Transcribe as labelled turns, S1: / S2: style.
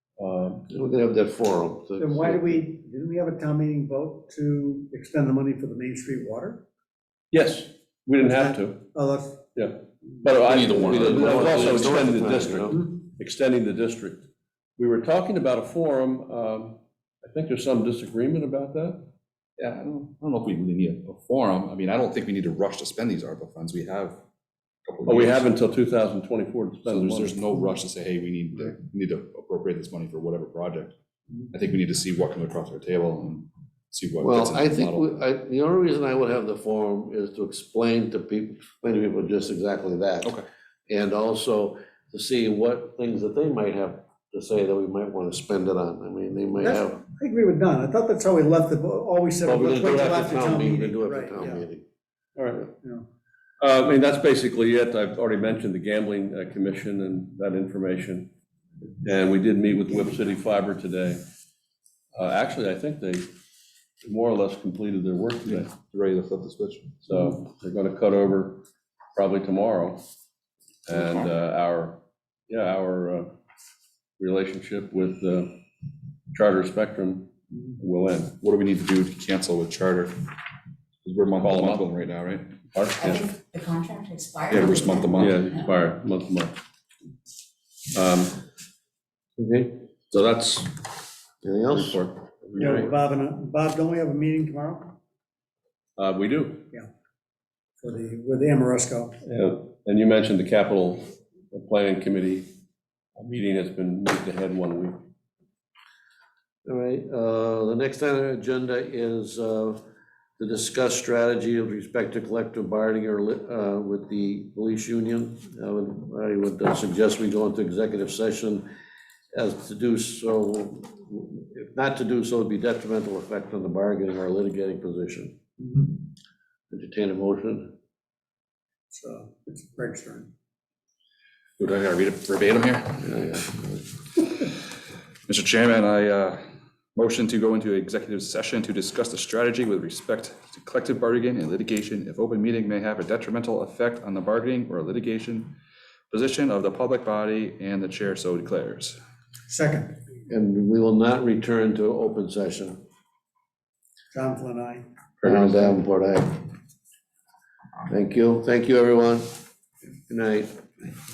S1: Um,
S2: We're gonna have that forum. so-
S3: Then why do we, didn't we have a town meeting vote to extend the money for the Main Street water?
S4: Yes, we didn't have to,
S3: Oh, that's,
S4: but I.
S1: Neither one of them.
S4: we- I was also
S1: It's the
S4: extending
S2: time,
S4: the
S2: you
S4: district,
S3: know?
S4: extending the district. We were talking about a forum, um, I think there's some disagreement about that.
S1: Yeah, I don't, I don't know if we really need a forum. I mean, I don't think we need to rush to spend these ARPA funds. We have. a couple of
S2: Oh,
S4: But we
S1: years.
S4: have until 2024 to
S1: So
S4: spend
S1: there's,
S4: the
S1: there's
S4: money.
S1: no rush to say, hey, we need, to- we need to appropriate this money for whatever project. I think we need to see what comes across our table and see what. fits
S2: Well,
S1: into
S2: I
S1: the
S2: think,
S1: model.
S2: we- I, the only reason I would have the forum is to explain to people, explain to people just exactly that.
S1: Okay.
S2: And also to see what things that they might have to say that we might want to spend it on. I mean, they might
S3: That's-
S2: have.
S3: I agree with Don, I thought that's how we left it, all we said,
S2: But
S3: was
S2: we're
S3: let's
S2: gonna do
S3: wait
S2: it
S3: till after town
S2: We're gonna
S3: meeting,
S2: do it
S3: right,
S2: after town
S3: yeah.
S2: meeting.
S4: All right.
S3: Yeah.
S4: Uh, I mean, that's basically it. I've already mentioned the gambling uh, commission and that information. And we did meet with Whip City Fiber today. Uh, Actually, I think they more or less completed their work today.
S1: Ready to flip the switch.
S4: So they're going to cut over probably tomorrow. And uh, our, yeah, our uh, relationship with uh, Charter Spectrum will end.
S1: What do we need to do to cancel with charter? 'Cause we're month
S4: Call
S1: to
S4: them
S1: month
S4: up.
S1: right now, right?
S4: Our-
S5: I think the contract expired.
S1: Yeah, we're just month to month.
S4: Yeah, expire month to month. Um,
S2: Okay,
S4: So that's the
S2: anything else?
S4: report.
S3: Yeah, Bob and, I- Bob, don't we have a meeting tomorrow
S4: Uh, We do.
S3: for the, with Amoresco?
S4: Yeah, And you mentioned the capital planning committee meeting has been moved ahead one week.
S2: All right, uh, the next item on the agenda is uh, to discuss strategy with respect to collective bargaining or lit- uh, with the police union. I would- I would uh, suggest we go into executive session as to do so, if not to do so, would be detrimental effect on the bargaining or litigating position. Entertain a motion.
S3: So, it's Greg's turn.
S1: Would I gotta read it verbatim here? Mr. Chairman, I uh, motion to go into executive session to discuss the strategy with respect to collective bargaining and litigation if open meeting may have a detrimental effect on the bargaining or litigation position of the public body and the chair so declares.
S3: Second,
S2: And we will not return to open session.
S3: John Flynn, aye.
S2: Around Davenport, aye. Thank you, thank you, everyone. Good night.